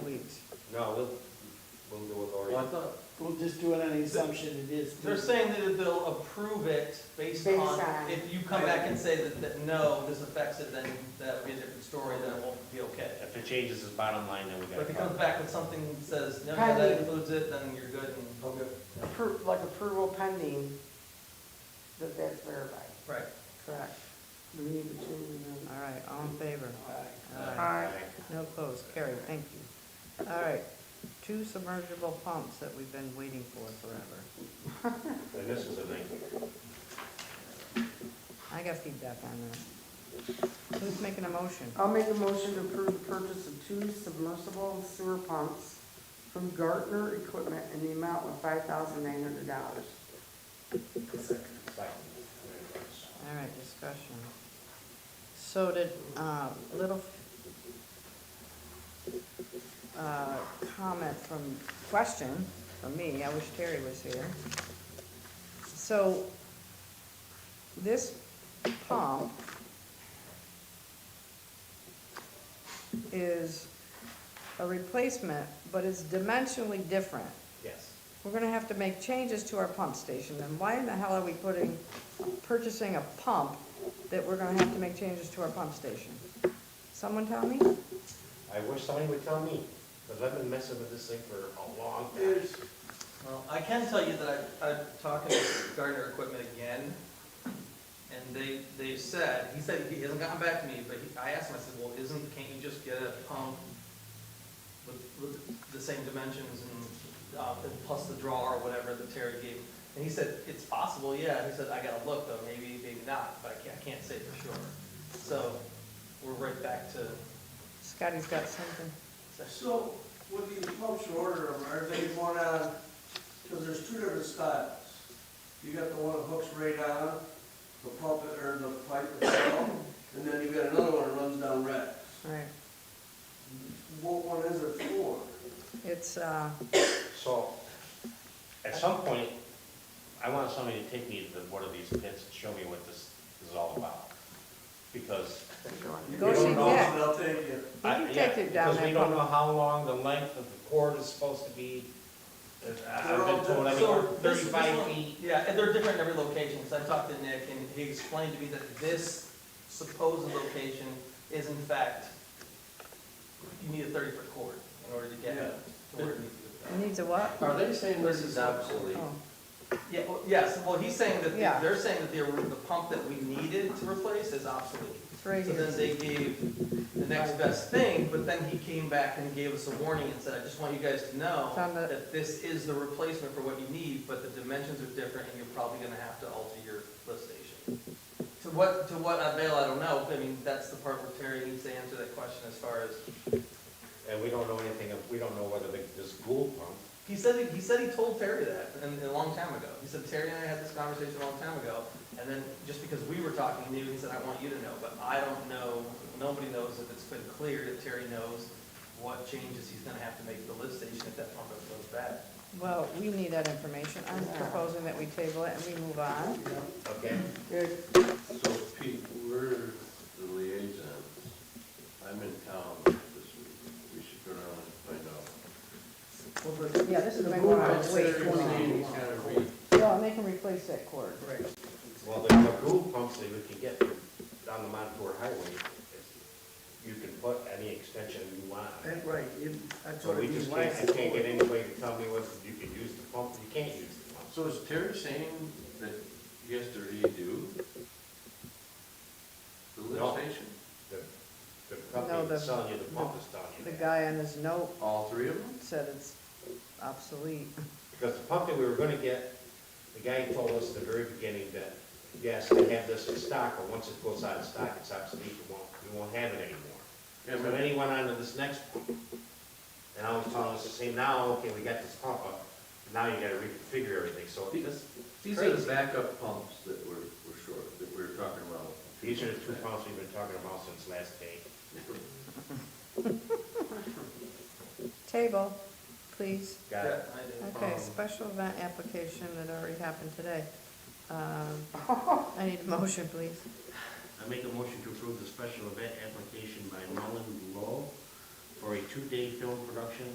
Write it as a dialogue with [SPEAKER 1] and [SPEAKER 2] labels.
[SPEAKER 1] No, we'll, we'll do with
[SPEAKER 2] Well, I
[SPEAKER 1] Lori.
[SPEAKER 2] thought,
[SPEAKER 3] We'll just do it on the assumption it is.
[SPEAKER 2] they're saying that they'll approve it based
[SPEAKER 4] Based
[SPEAKER 2] on,
[SPEAKER 4] on-
[SPEAKER 2] if you come back and say that, that no, this affects it, then that would be a different story, then it won't be okay.
[SPEAKER 1] If it changes his bottom line, then we
[SPEAKER 2] But
[SPEAKER 1] got
[SPEAKER 2] if
[SPEAKER 1] a
[SPEAKER 2] it comes
[SPEAKER 1] problem.
[SPEAKER 2] back with something that says, no, no,
[SPEAKER 4] Probably-
[SPEAKER 2] that includes it, then you're good and. Okay.
[SPEAKER 4] Appro- like approval pending, that that's verified,
[SPEAKER 2] Right.
[SPEAKER 4] correct? We need to change them.
[SPEAKER 5] All right, all in favor?
[SPEAKER 2] Aye.
[SPEAKER 5] Aye. No opposed, carried, thank you. All right, two submersible pumps that we've been waiting for forever.
[SPEAKER 1] And this is a nice
[SPEAKER 5] I got feedback on that. Who's making a motion?
[SPEAKER 4] I'll make a motion to approve the purchase of two submersible sewer pumps from Gartner Equipment in the amount of five thousand nine hundred dollars.
[SPEAKER 1] one.
[SPEAKER 5] All right, discussion. So did, uh, little, uh, comment from, question from me, I wish Terry was here. So, this pump is a replacement, but it's dimensionally different.
[SPEAKER 1] Yes.
[SPEAKER 5] We're gonna have to make changes to our pump station, then why in the hell are we putting, purchasing a pump that we're gonna have to make changes to our pump station? Someone tell me?
[SPEAKER 1] I wish somebody would tell me, because I've been messing with this thing for a long time.
[SPEAKER 2] There's- Well, I can tell you that I, I'm talking to Gardner Equipment again, and they, they said, he said, he hasn't gotten back to me, but he- I asked him, I said, well, isn't, can't you just get a pump with, with the same dimensions and, uh, and plus the draw or whatever that Terry gave? And he said, it's possible, yeah, he said, I gotta look though, maybe, maybe not, but I can't, I can't say for sure. So, we're right back to,
[SPEAKER 5] Scotty's got something.
[SPEAKER 6] So, when these pumps you order them, are they one on, because uh, there's two different styles. You got the one that hooks right on, the pump, or the pipe itself, and then you got another one that runs down racks.
[SPEAKER 5] Right,
[SPEAKER 6] What one is it for?
[SPEAKER 5] it's, uh,
[SPEAKER 1] So, at some point, I want somebody to take me to one of these pits and show me what this is all about. Because
[SPEAKER 6] You
[SPEAKER 5] Go see
[SPEAKER 6] don't know,
[SPEAKER 5] Jack.
[SPEAKER 6] but I'll take you.
[SPEAKER 5] You
[SPEAKER 1] I-
[SPEAKER 5] can
[SPEAKER 1] yeah,
[SPEAKER 5] take it down
[SPEAKER 1] Because we
[SPEAKER 5] there,
[SPEAKER 1] don't
[SPEAKER 5] Paul.
[SPEAKER 1] know how long the length of the cord is supposed to be. Uh, I- I've
[SPEAKER 6] They're all
[SPEAKER 1] been told
[SPEAKER 6] different.
[SPEAKER 1] anywhere
[SPEAKER 2] So this- this
[SPEAKER 1] thirty-five
[SPEAKER 2] one-
[SPEAKER 1] feet.
[SPEAKER 2] Yeah, and they're different in every location, so I talked to Nick, and he explained to me that this supposed location is in fact, you need a thirty-foot cord in order to get it to where it needs
[SPEAKER 5] it
[SPEAKER 2] to
[SPEAKER 5] needs a what?
[SPEAKER 7] Are they saying this is obsolete?
[SPEAKER 5] Oh,
[SPEAKER 2] go. Yeah, well, yes, well, he's saying that,
[SPEAKER 5] Yeah.
[SPEAKER 2] the- they're saying that the, the pump that we needed to replace is obsolete.
[SPEAKER 5] It's right
[SPEAKER 2] So then
[SPEAKER 5] here.
[SPEAKER 2] they gave the next best thing, but then he came back and gave us a warning and said, I just want you guys to know
[SPEAKER 5] It's on the-
[SPEAKER 2] that this is the replacement for what you need, but the dimensions are different and you're probably gonna have to alter your lift station. To what, to what avail, I don't know, I mean, that's the part where Terry needs to answer that question as far as,
[SPEAKER 1] And we don't know anything, of- we don't know whether the- this Gould pump
[SPEAKER 2] he said, he said he told Terry that, and, a long time ago. He said, Terry and I had this conversation a long time ago, and then just because we were talking, he knew, he said, I want you to know, but I don't know, nobody knows if it's been cleared, if Terry knows what changes he's gonna have to make to the lift station if that pump ever goes bad.
[SPEAKER 5] Well, we need that information, I'm proposing that we table it and we move on.
[SPEAKER 1] Okay,
[SPEAKER 4] Good.
[SPEAKER 7] So Pete, we're the liaisons. I'm in town this week. We should go down and find out.
[SPEAKER 5] Yeah, this is
[SPEAKER 4] The
[SPEAKER 5] my
[SPEAKER 4] Google
[SPEAKER 5] one,
[SPEAKER 4] is
[SPEAKER 5] wait,
[SPEAKER 4] thirty.
[SPEAKER 7] Sandy's gotta be,
[SPEAKER 5] well, and they can replace that cord.
[SPEAKER 2] Right.
[SPEAKER 1] well, the, the Gould pumps that we can get from down the Montour Highway, is- you can put any extension you want. on it.
[SPEAKER 6] right, that's
[SPEAKER 1] So we just can't, I can't get anybody to tell me whether you can use the pump, or you can't use the pump.
[SPEAKER 7] so is Terry saying that he has to redo the
[SPEAKER 1] No.
[SPEAKER 7] lift station?
[SPEAKER 1] The, the
[SPEAKER 5] No,
[SPEAKER 1] company
[SPEAKER 5] the-
[SPEAKER 1] that's selling you the pump is telling
[SPEAKER 5] The
[SPEAKER 1] you that.
[SPEAKER 5] guy on his note
[SPEAKER 7] All three of them?
[SPEAKER 5] said it's obsolete.
[SPEAKER 1] Because the pump that we were gonna get, the guy told us at the very beginning that, yes, they have this in stock, but once it goes out of stock, it's obsolete, we won't, we won't have it anymore.
[SPEAKER 7] Yeah,
[SPEAKER 1] And
[SPEAKER 7] but-
[SPEAKER 1] then he went on to this next one. And I was telling us to say, now, okay, we got this pump up, now you gotta reconfigure everything, so this,
[SPEAKER 7] These are the backup pumps that were, were short, that we were talking about.
[SPEAKER 1] these are the two pumps we've been talking about since last day.
[SPEAKER 5] Table, please.
[SPEAKER 1] Got it?
[SPEAKER 2] Yeah, I do.
[SPEAKER 5] Okay,
[SPEAKER 1] Um,
[SPEAKER 5] special event application that already happened today. Um, I need a motion, please.
[SPEAKER 1] I make a motion to approve the special event application by Mullen Lowe for a two-day film production